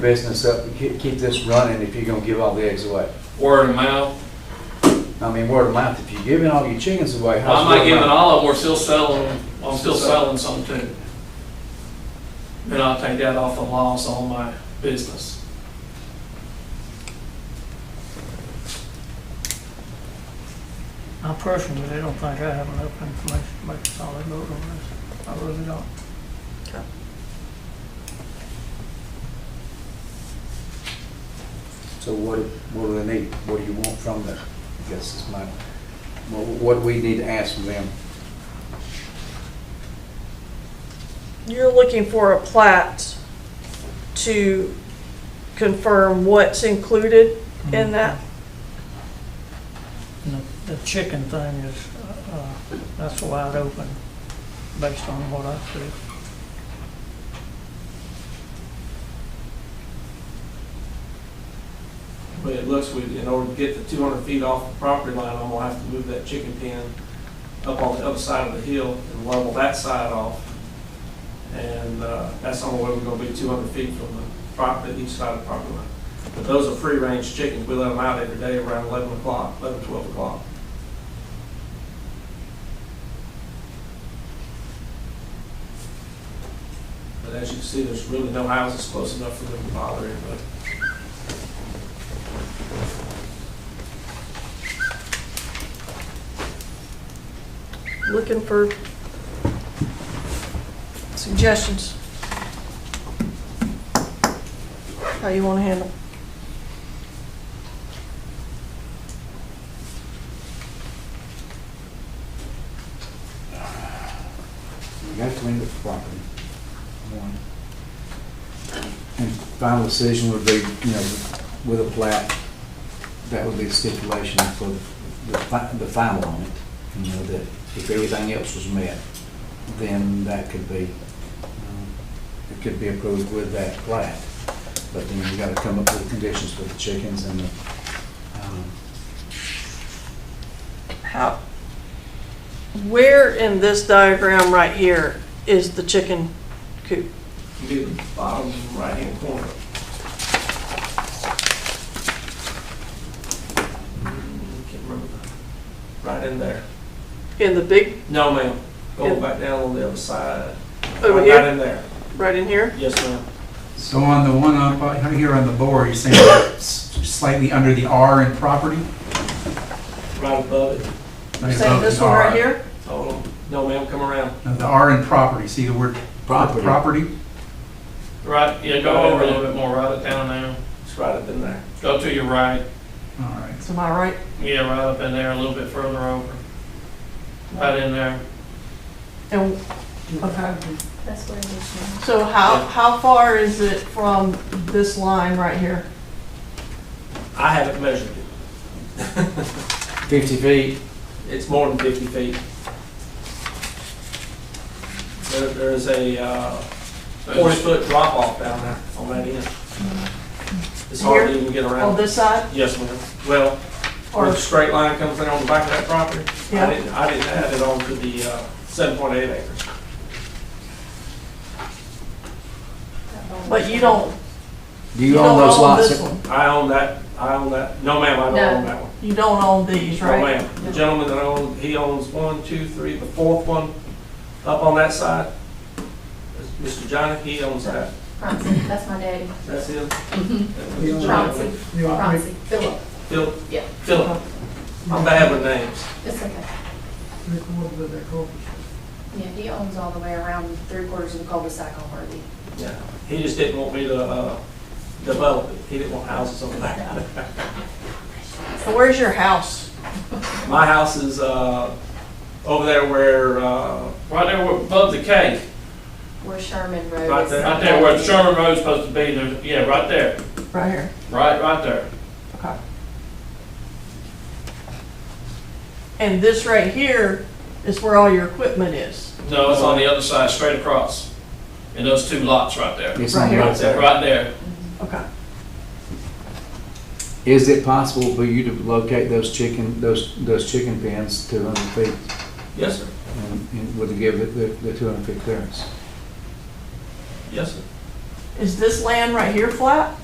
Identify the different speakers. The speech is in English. Speaker 1: business up, and keep, keep this running if you're gonna give all the eggs away.
Speaker 2: Word of mouth.
Speaker 1: I mean, word of mouth, if you're giving all your chickens away,
Speaker 2: Why
Speaker 1: how's
Speaker 2: am
Speaker 1: word
Speaker 2: I
Speaker 1: of
Speaker 2: giving
Speaker 1: mouth?
Speaker 2: all of them, we're still selling, them. I'm still selling some too. Then I'll take that off the loss on my business.
Speaker 3: I personally, I don't think I have enough information to make a solid vote on this. I really don't.
Speaker 1: So what, what do they need? What do you want from them? I guess is my, what, what do we need to ask from them?
Speaker 4: You're looking for a plat to confirm what's included in that?
Speaker 3: And the- The chicken thing is, uh, uh, that's wide open based on what I see.
Speaker 5: But it looks, we, in order to get the two hundred feet off the property line, I'm gonna have to move that chicken pen up on the other side of the hill and level that side off. And, uh, that's the only way we're gonna be two hundred feet from the property, each side of the property line. But those are free-range chickens, we let them out every day around eleven o'clock, eleven, twelve o'clock. But as you can see, there's really no houses close enough for them to bother anybody.
Speaker 4: Looking for suggestions? How you want to handle?
Speaker 1: You gotta clean up the property, one. And final decision would be, you know, with a plat, that would be the stipulation for the, fi- the final on it. You know, that if everything else was met, then that could be, um, it could be approved with that plat. But then you gotta come up with conditions for the chickens and the, um,
Speaker 4: How, where in this diagram right here is the chicken coop?
Speaker 5: be the bottom right-hand corner. Mm, Can't remember. Right in there.
Speaker 4: In the big,
Speaker 5: No, ma'am.
Speaker 4: Yeah.
Speaker 5: Go back down on the other side.
Speaker 4: Over
Speaker 5: Right-
Speaker 4: here?
Speaker 5: Right in there.
Speaker 4: right in here?
Speaker 5: Yes, ma'am.
Speaker 6: So on the one up on- here on the board, you're saying it's slightly under the R in property?
Speaker 5: Right above it.
Speaker 6: Like
Speaker 4: Saying
Speaker 6: above
Speaker 4: this
Speaker 6: the
Speaker 4: one right
Speaker 6: R.
Speaker 4: here?
Speaker 5: Hold on. No, ma'am, come around.
Speaker 6: No, The R in property, see the word
Speaker 1: property.
Speaker 6: property?
Speaker 2: Right, yeah, go over a little bit more, write it down now.
Speaker 5: It's right up in there.
Speaker 2: Go to your right,
Speaker 6: All right.
Speaker 4: Am I right?
Speaker 2: yeah, right up in there, a little bit further over. Right in there.
Speaker 4: And, okay.
Speaker 7: That's where it is now.
Speaker 4: So how, how far is it from this line right here?
Speaker 5: I haven't measured it.
Speaker 1: Fifty feet,
Speaker 5: It's more than 50 feet. There, there is a, uh, four-foot drop-off down there on that end. It's hard to even get
Speaker 4: On
Speaker 5: around.
Speaker 4: this side?
Speaker 5: Yes, ma'am. Well, where
Speaker 4: Or,
Speaker 5: the straight line comes in on the back of that property,
Speaker 4: Yeah.
Speaker 5: I didn't, I didn't add it on to the uh, seven point eight acres.
Speaker 4: but you don't,
Speaker 1: do
Speaker 4: you
Speaker 1: you own
Speaker 4: don't
Speaker 1: those
Speaker 4: own this
Speaker 1: lots?
Speaker 4: one?
Speaker 5: I own that, I own that, no ma'am, I don't
Speaker 7: No.
Speaker 5: own that one.
Speaker 4: You don't own these,
Speaker 5: No
Speaker 4: right?
Speaker 5: ma'am. The gentleman that owns, he owns one, two, three, the fourth one up on that side, is Mr. Johnny, he owns that.
Speaker 7: Francie, that's my daddy.
Speaker 5: That's him.
Speaker 7: Francie, Francie, Philip,
Speaker 5: Phil,
Speaker 7: yeah,
Speaker 5: Philip. I'm bad with names.
Speaker 7: it's okay. Yeah, he owns all the way around three quarters of the cul-de-sac on Worthy.
Speaker 5: Yeah. He just didn't want me to, uh, develop it. He didn't want houses on that.
Speaker 4: So where's your house?
Speaker 5: My house is, uh, over there where, uh,
Speaker 2: Right there where- above the K,
Speaker 7: Where Sherman Road is.
Speaker 5: Right there.
Speaker 2: right there where Sherman Road's supposed to be, there's, yeah, right there,
Speaker 4: Right here.
Speaker 2: right, right there.
Speaker 4: Okay. And this right here is where all your equipment is.
Speaker 2: No, uh, it's on the other side, straight across. And those two lots right there,
Speaker 1: It's on
Speaker 4: Right here.
Speaker 1: lots.
Speaker 2: right there.
Speaker 4: Okay.
Speaker 1: Is it possible for you to locate those chicken, those, those chicken pens two hundred feet
Speaker 5: Yes, sir.
Speaker 1: and- and would it give it the, the two hundred feet clearance?
Speaker 5: Yes, sir.
Speaker 4: Is this land right here flat?